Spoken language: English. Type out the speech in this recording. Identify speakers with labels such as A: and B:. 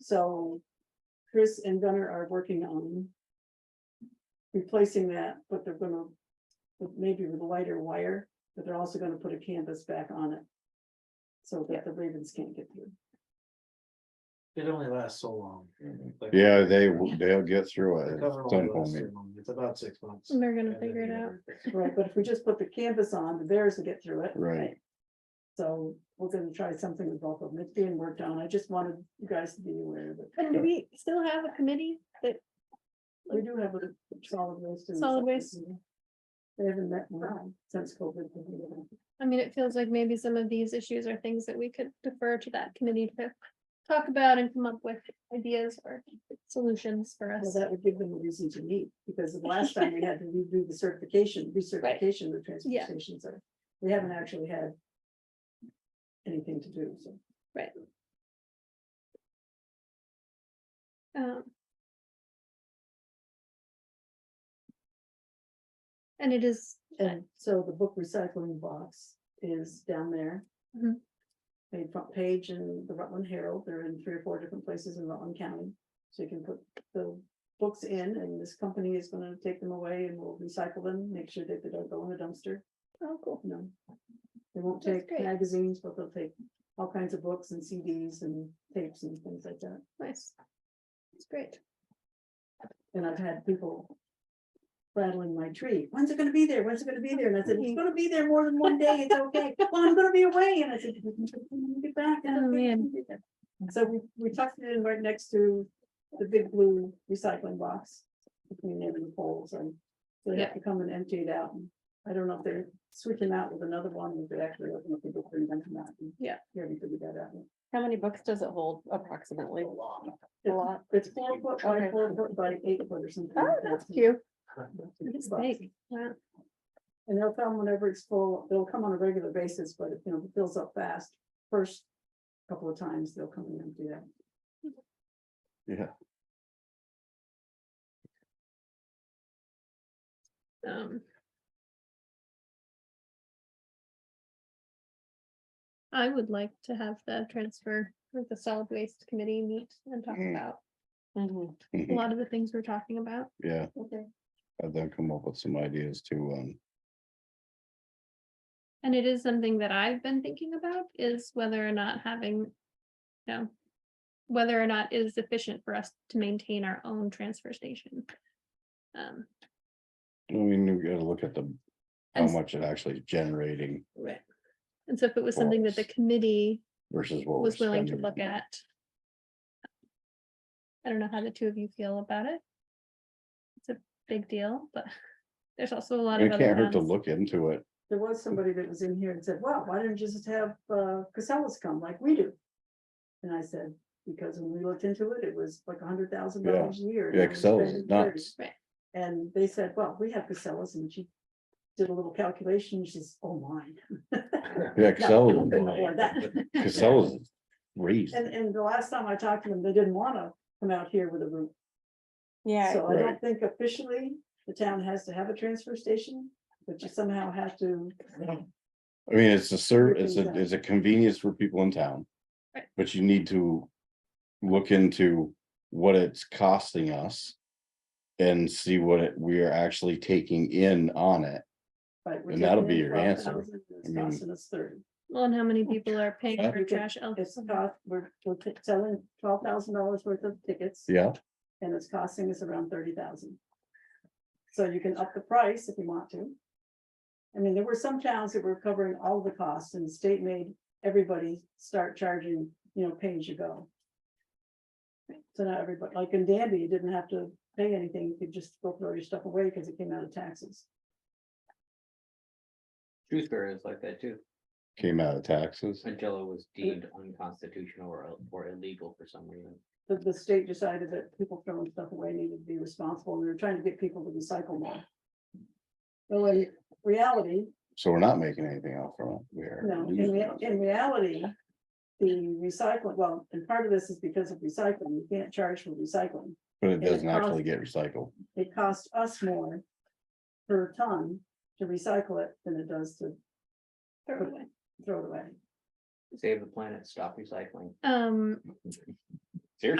A: So Chris and Gunnar are working on replacing that, but they're gonna, with- maybe with lighter wire, but they're also gonna put a canvas back on it. So that the ravens can't get through.
B: It only lasts so long. Like,
C: Yeah, they, w- they'll get through
B: the
C: it.
B: cover
C: It's
B: only lasts
C: unbelievable.
B: three months. It's about six months.
D: They're gonna
B: And
D: figure it
B: then
D: out.
B: you-
A: Right, but if we just put the canvas on, the bears will get through it.
C: Right.
A: So we're gonna try something with both of them. It's being worked on. I just wanted you guys to be aware of it.
D: And do we still have a committee that,
A: We do have a solid waste. and-
D: Solid waste.
A: They haven't met in a while since COVID.
D: I mean, it feels like maybe some of these issues are things that we could defer to that committee to talk about and come up with ideas or solutions for
A: Well,
D: us.
A: that would give them a reason to meet, because the last time we had to redo the certification, recertification of the transfer
D: Yeah.
A: stations, so we haven't actually had. Anything to do, so.
D: Um, And it is,
A: And so the book recycling box is down there.
D: Mhm.
A: They front page and the Rutland Herald, they're in three or four different places in Rutland County. So you can put the books in and this company is gonna take them away and we'll recycle them, make sure that they don't go in the dumpster.
D: oh, cool.
A: No. They won't
D: That's
A: take
D: great.
A: magazines, but they'll take all kinds of books and CDs and tapes and things like that.
D: Nice. It's great.
A: And I've had people rattling my tree. When's it gonna be there? When's it gonna be there? And I said, it's gonna be there more than one day. It's okay. Well, I'm gonna be away. And I said, "When you get back. it's
D: Oh,
A: okay, you
D: man.
A: can do that." So we, we tucked it in right next to the big blue recycling box between them and the poles and they have to come and empty it out. And I don't know if they're switching out with another one, if they actually open up the book and then come out. and
D: Yeah.
A: Here we could do that out.
E: How many books does it hold approximately? A
A: It's-
E: lot.
A: It's four foot by
E: Okay.
A: four foot by eight foot or something.
E: Oh,
A: like that.
E: that's cute.
D: It's
A: Box.
D: big. Wow.
A: And they'll come whenever it's full, they'll come on a regular basis, but if, you know, it fills up fast, first couple of times, they'll come in and do that.
D: Um. I would like to have the transfer, with the solid waste committee meet and talk
C: Mm.
D: about
E: Mhm.
D: a lot of the things we're talking about.
C: Yeah,
A: Okay.
C: and then come up with some ideas to, um,
D: And it is something that I've been thinking about is whether or not having, you know, whether or not it is efficient for us to maintain our own transfer station. Um,
C: I mean, you gotta look at the, how
D: And s-
C: much it actually is generating
D: Right. And so if it was something that the
C: Yes.
D: committee
C: versus what.
D: was
C: we're
D: willing to
C: spending.
D: look at. I don't know how the two of you feel about it. It's a big deal, but there's also a lot of
C: It
D: other
C: can't hurt to
D: ones.
C: look into it.
A: There was somebody that was in here and said, wow, why didn't you just have uh Casellas come like we do? And I said, because when we looked into it, it was like a hundred thousand dollars a year. and
C: Yeah,
A: now we're
C: Casellas is
A: spending 30.
C: nuts.
D: Right.
A: And they said, well, we have Casellas and she did a little calculation, she says, oh my. No,
C: Yeah, Casella,
A: we couldn't afford that.
C: Casella's raised.
A: And, and the last time I talked to them, they didn't wanna come out here with a roof.
E: Yeah,
A: So I don't
C: Right.
A: think officially the town has to have a transfer station, but you somehow have to.
C: I mean, it's a serv, it's a,
A: Everything's
C: it's a convenience for people in town.
D: Right.
C: But you need to look into what it's costing us. And see what it, we are actually taking in on it.
A: right, we're
C: And that'll
A: taking
C: be
A: in
C: your answer.
A: 12,000, It's
C: I mean-
A: costing us thirty.
D: Well, and how many people are paying
C: Yeah.
D: for trash? Oh,
A: It's cost, we're, we're t- selling twelve thousand dollars worth of tickets.
C: Yeah,
A: And it's costing us around thirty thousand. So you can up the price if you want to. I mean, there were some towns that were covering all the costs and the state made everybody start charging, you know, pay as you go. So now everybody, like in Danby, you didn't have to pay anything, you could just go throw your stuff away because it came out of taxes.
F: Shrewsbury is like that too,
C: came out of taxes.
F: until it was deemed unconstitutional or, or illegal for some reason.
A: The, the state decided that people throwing stuff away needed to be responsible, and they were trying to get people to recycle more. Well, in reality,
C: So we're not making anything out from it. We're.
A: No, in
C: losing
A: rea-
C: out.
A: in reality, the recycling, well, and part of this is because of recycling, you can't charge for recycling.
C: But it
A: it
C: doesn't actually
A: costs-
C: get recycled.
A: It costs us more per ton to recycle it than it does to
D: throw it away.
A: throw it away.
F: Save the planet, stop recycling.
D: Um,